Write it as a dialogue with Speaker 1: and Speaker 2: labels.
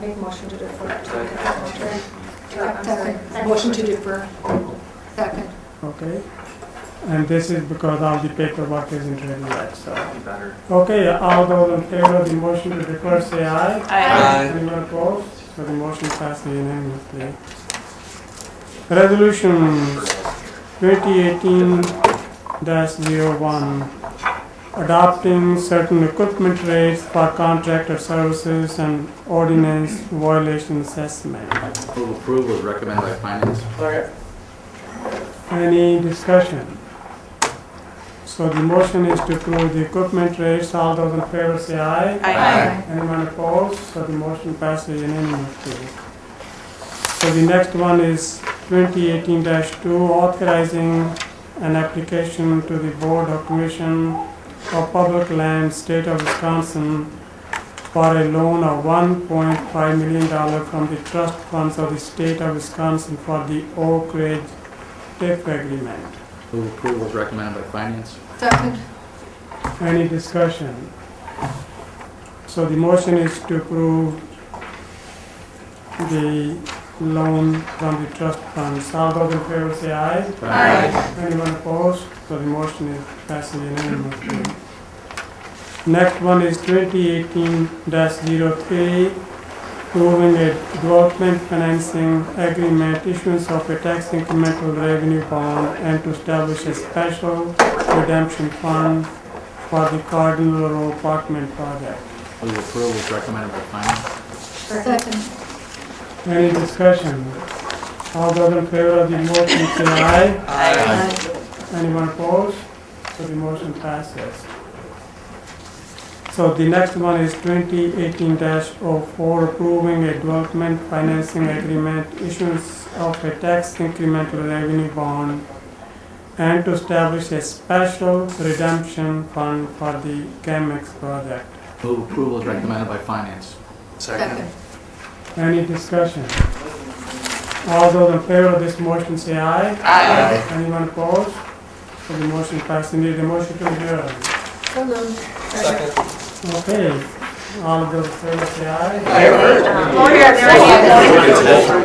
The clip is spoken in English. Speaker 1: Make motion to defer. Second. Motion to defer. Second.
Speaker 2: Okay. And this is because all the paperwork isn't ready yet, so.
Speaker 3: Better.
Speaker 2: Okay, all those in favor of the motion to defer, say aye.
Speaker 4: Aye.
Speaker 2: Anyone opposed? So the motion passes unanimously. Resolution 2018-01, adopting certain equipment rates for contractor services and ordinance violation assessment.
Speaker 5: Move approval is recommended by finance.
Speaker 4: Second.
Speaker 2: Any discussion? So the motion is to approve the equipment rates. All those in favor say aye.
Speaker 4: Aye.
Speaker 2: Anyone opposed? So the motion passes unanimously. So the next one is 2018-2, authorizing an application to the Board of Commission of Public Land, State of Wisconsin, for a loan of $1.5 million from the trust funds of the state of Wisconsin for the Oak Ridge TIF agreement.
Speaker 5: Move approval is recommended by finance.
Speaker 1: Second.
Speaker 2: Any discussion? So the motion is to approve the loan from the trust funds. All those in favor say aye.
Speaker 1: Aye.
Speaker 2: Anyone opposed? So the motion is passed unanimously. Next one is twenty eighteen 3 approving a development financing agreement, issuance of a tax incremental revenue bond, and to establish a special redemption fund for the Cardinal Row apartment project.
Speaker 5: Move approval is recommended by finance.
Speaker 1: Second.
Speaker 2: Any discussion? All those in favor of the motion say aye. Anyone opposed? So the motion passes. So the next one is twenty eighteen 4 approving a development financing agreement, issuance of a tax incremental revenue bond, and to establish a special redemption fund for the CAMX project.
Speaker 5: Move approval is recommended by finance.
Speaker 3: Second.
Speaker 2: Any discussion? All those in favor of this motion say aye.
Speaker 4: Aye.
Speaker 2: Anyone opposed? So the motion passes. Need a motion to adjourn.
Speaker 1: So moved.
Speaker 2: Okay, all those in favor say aye.
Speaker 4: Oh, yeah, there it is.